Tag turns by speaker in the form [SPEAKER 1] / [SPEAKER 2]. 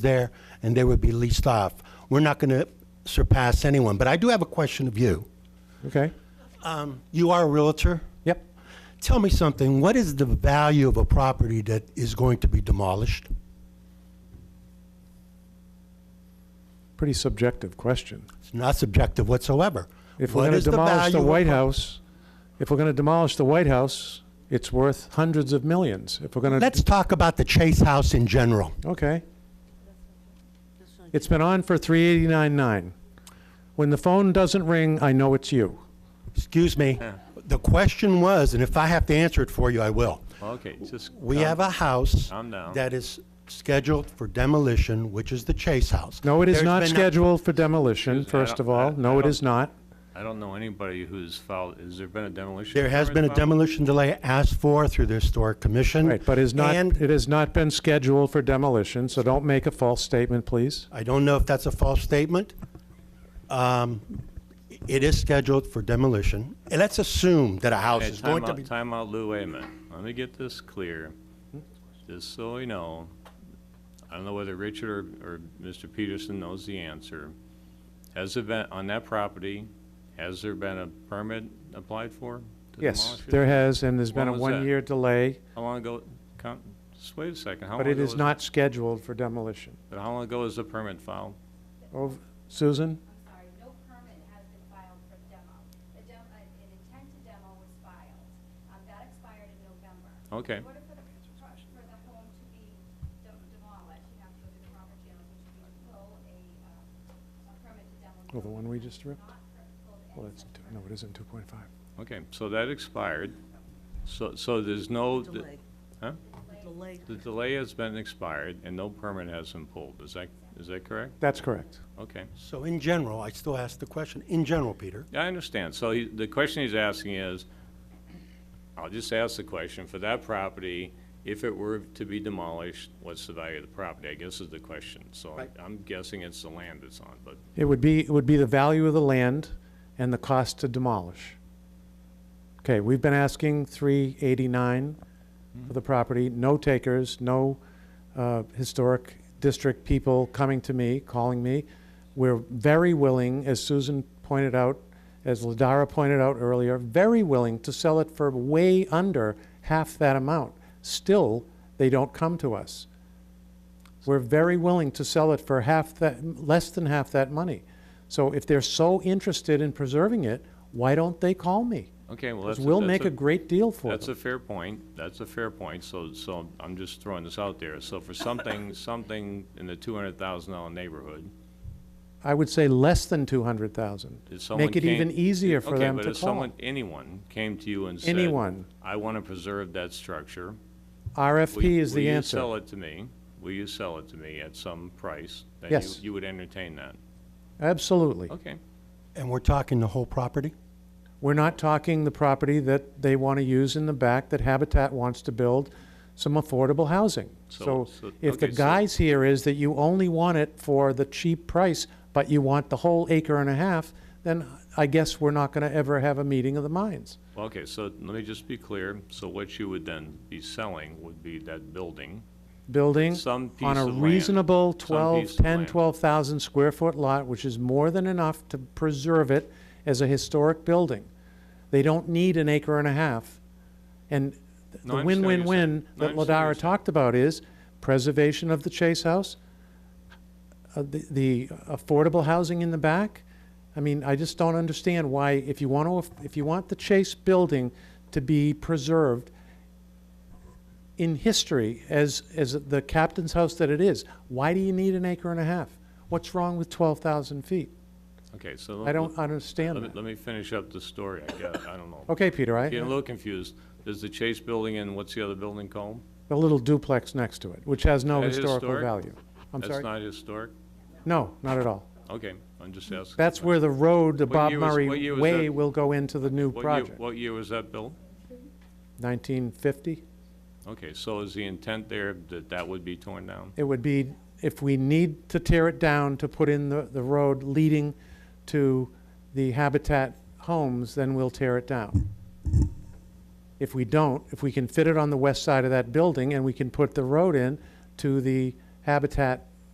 [SPEAKER 1] there, and they would be leased off. We're not going to surpass anyone, but I do have a question of you.
[SPEAKER 2] Okay.
[SPEAKER 3] Um,
[SPEAKER 1] You are a realtor?
[SPEAKER 2] Yep.
[SPEAKER 1] Tell me something, what is the value of a property that is going to be demolished?
[SPEAKER 2] Pretty subjective question.
[SPEAKER 1] It's not subjective whatsoever.
[SPEAKER 2] If we're
[SPEAKER 1] What
[SPEAKER 2] going
[SPEAKER 1] is
[SPEAKER 2] to demolish
[SPEAKER 1] value
[SPEAKER 2] the
[SPEAKER 1] of a
[SPEAKER 2] White
[SPEAKER 1] pro-
[SPEAKER 2] House, if we're going to demolish the White House, it's worth hundreds of millions. If we're going to,
[SPEAKER 1] Let's talk about the Chase House in general.
[SPEAKER 2] okay. It's been on for 389.9. When the phone doesn't ring, I know it's you.
[SPEAKER 1] Excuse me. The question was, and if I have to answer it for you, I will.
[SPEAKER 3] Okay, just.
[SPEAKER 1] We
[SPEAKER 3] calm-
[SPEAKER 1] have a house
[SPEAKER 3] Calm down.
[SPEAKER 1] that is scheduled for demolition, which is the Chase House.
[SPEAKER 2] No, it is
[SPEAKER 1] There's
[SPEAKER 2] not
[SPEAKER 1] been
[SPEAKER 2] scheduled for demolition,
[SPEAKER 3] Excuse me, I
[SPEAKER 2] first
[SPEAKER 3] don't-
[SPEAKER 2] of all.
[SPEAKER 3] I-
[SPEAKER 2] No,
[SPEAKER 3] I
[SPEAKER 2] it
[SPEAKER 3] don't-
[SPEAKER 2] is not.
[SPEAKER 3] I don't know anybody who's filed, has there been a demolition?
[SPEAKER 1] There has been
[SPEAKER 3] permit
[SPEAKER 1] a
[SPEAKER 3] filed?
[SPEAKER 1] demolition delay asked for through the Historic Commission.
[SPEAKER 2] Right, but is not,
[SPEAKER 1] And
[SPEAKER 2] it has not been scheduled for demolition, so don't make a false statement, please.
[SPEAKER 1] I don't know if that's a false statement. Um, It is scheduled for demolition. And let's assume that a house
[SPEAKER 3] Okay,
[SPEAKER 1] is going
[SPEAKER 3] time
[SPEAKER 1] to
[SPEAKER 3] out,
[SPEAKER 1] be...
[SPEAKER 3] time out, Lou, wait a minute. Let me get this clear, just so we know. I don't know whether Richard or, or Mr. Peterson knows the answer. Has there been, on that property, has there been a permit applied for? to
[SPEAKER 2] Yes,
[SPEAKER 3] demolish it?
[SPEAKER 2] there has, and there's been a
[SPEAKER 3] When was that?
[SPEAKER 2] one-year delay,
[SPEAKER 3] How long ago, come, just wait a second, how long
[SPEAKER 2] but it
[SPEAKER 3] ago?
[SPEAKER 2] is
[SPEAKER 3] was-
[SPEAKER 2] not scheduled for demolition.
[SPEAKER 3] But how long ago was the permit filed?
[SPEAKER 2] Ov- Susan?
[SPEAKER 4] I'm sorry, no permit has been filed for the demo. The demo, an intent to demo was filed. Um, that expired in November.
[SPEAKER 3] Okay.
[SPEAKER 4] In order for the, for the home to be de- demolished, you have to go through the proper channels, which would be pull a, uh, a permit to demo.
[SPEAKER 2] Oh, the one we just ripped?
[SPEAKER 4] Not per- pulled
[SPEAKER 2] Well,
[SPEAKER 4] any
[SPEAKER 2] that's,
[SPEAKER 4] such
[SPEAKER 2] two- no, it isn't 2.5.
[SPEAKER 3] Okay, so that expired. So, so there's no.
[SPEAKER 5] Delay.
[SPEAKER 3] Huh?
[SPEAKER 5] Delay.
[SPEAKER 3] The delay has been expired and no permit has been pulled. Is that, is that correct?
[SPEAKER 2] That's correct.
[SPEAKER 3] Okay.
[SPEAKER 1] So in general, I still ask the question, in general, Peter,
[SPEAKER 3] Yeah, I understand. So he- the question he's asking is, I'll just ask the question, for that property, if it were to be demolished, what's the value of the property? I guess is the question. So I-
[SPEAKER 1] Right.
[SPEAKER 3] I'm guessing it's the land it's on, but
[SPEAKER 2] It would be, it would be the value of the land and the cost to demolish. Okay, we've been asking 389 for the property, no takers, no uh, historic district people coming to me, calling me. We're very willing, as Susan pointed out, as Ladara pointed out earlier, very willing to sell it for way under half that amount. Still, they don't come to us. We're very willing to sell it for half that, less than half that money. So if they're so interested in preserving it, why don't they call me?
[SPEAKER 3] Okay, well,
[SPEAKER 2] 'Cause
[SPEAKER 3] that's.
[SPEAKER 2] we'll
[SPEAKER 3] that's
[SPEAKER 2] make a great deal for
[SPEAKER 3] That's a
[SPEAKER 2] them.
[SPEAKER 3] fair point. That's a fair point. So, so I'm just throwing this out there. So for something, something in the two hundred thousand dollar neighborhood,
[SPEAKER 2] I would say less than two hundred thousand.
[SPEAKER 3] if someone
[SPEAKER 2] Make it
[SPEAKER 3] came-
[SPEAKER 2] even easier for
[SPEAKER 3] Okay,
[SPEAKER 2] them
[SPEAKER 3] but
[SPEAKER 2] to
[SPEAKER 3] if
[SPEAKER 2] call.
[SPEAKER 3] someone, anyone came to you and said,
[SPEAKER 2] Anyone.
[SPEAKER 3] I want to preserve that structure. will
[SPEAKER 2] RFP
[SPEAKER 3] you-
[SPEAKER 2] is the
[SPEAKER 3] Will you sell
[SPEAKER 2] answer.
[SPEAKER 3] it to me? Will you sell it to me at some price? Then you-
[SPEAKER 2] Yes.
[SPEAKER 3] You would entertain that?
[SPEAKER 2] Absolutely.
[SPEAKER 3] Okay.
[SPEAKER 1] and we're talking the whole property?
[SPEAKER 2] We're not talking the property that they want to use in the back that Habitat wants to build some affordable housing. So
[SPEAKER 3] So- so-
[SPEAKER 2] if the
[SPEAKER 3] okay, so-
[SPEAKER 2] guise here is that you only want it for the cheap price, but you want the whole acre and a half, then I guess we're not going to ever have a meeting of the minds.
[SPEAKER 3] Well, Okay, so let me just be clear. So what you would then be selling would be that building.
[SPEAKER 2] Building
[SPEAKER 3] Some piece
[SPEAKER 2] on a
[SPEAKER 3] of land.
[SPEAKER 2] reasonable
[SPEAKER 3] Some
[SPEAKER 2] 12,
[SPEAKER 3] piece of
[SPEAKER 2] 10,
[SPEAKER 3] land.
[SPEAKER 2] 12,000 square foot lot, which is more than enough to preserve it as a historic building. They don't need an acre and a half. And th-
[SPEAKER 3] No,
[SPEAKER 2] the
[SPEAKER 3] I understand what you're saying.
[SPEAKER 2] win-win-win
[SPEAKER 3] No, I
[SPEAKER 2] that
[SPEAKER 3] understand what you're
[SPEAKER 2] Ladara
[SPEAKER 3] saying.
[SPEAKER 2] talked about is preservation of the Chase House, uh, the the affordable housing in the back. I mean, I just don't understand why, if you want to, if you want the Chase building to be preserved in history as, as the captain's house that it is, why do you need an acre and a half? What's wrong with 12,000 feet?
[SPEAKER 3] Okay, so.
[SPEAKER 2] I don't
[SPEAKER 3] Let
[SPEAKER 2] understand
[SPEAKER 3] me,
[SPEAKER 2] that.
[SPEAKER 3] let me finish up the story, I guess. I don't know.
[SPEAKER 2] Okay, Peter, I,
[SPEAKER 3] Getting a little confused. There's the Chase Building and what's the other building called?
[SPEAKER 2] the little duplex next to it, which has no
[SPEAKER 3] That is
[SPEAKER 2] historical
[SPEAKER 3] historic?
[SPEAKER 2] value. I'm
[SPEAKER 3] That's
[SPEAKER 2] sorry?
[SPEAKER 3] not historic?
[SPEAKER 2] No, not at all.
[SPEAKER 3] Okay, I'm just asking.
[SPEAKER 2] That's where the road, the
[SPEAKER 3] What
[SPEAKER 2] Bob
[SPEAKER 3] year was- what
[SPEAKER 2] Murray
[SPEAKER 3] year was
[SPEAKER 2] Way
[SPEAKER 3] that?
[SPEAKER 2] will go into the new
[SPEAKER 3] What year-
[SPEAKER 2] project.
[SPEAKER 3] What year was that built?
[SPEAKER 2] 1950?
[SPEAKER 3] Okay, so is the intent there that that would be torn down?
[SPEAKER 2] It would be, if we need to tear it down to put in the, the road leading to the Habitat homes, then we'll tear it down. If we don't, if we can fit it on the west side of that building and we can put the road in to the Habitat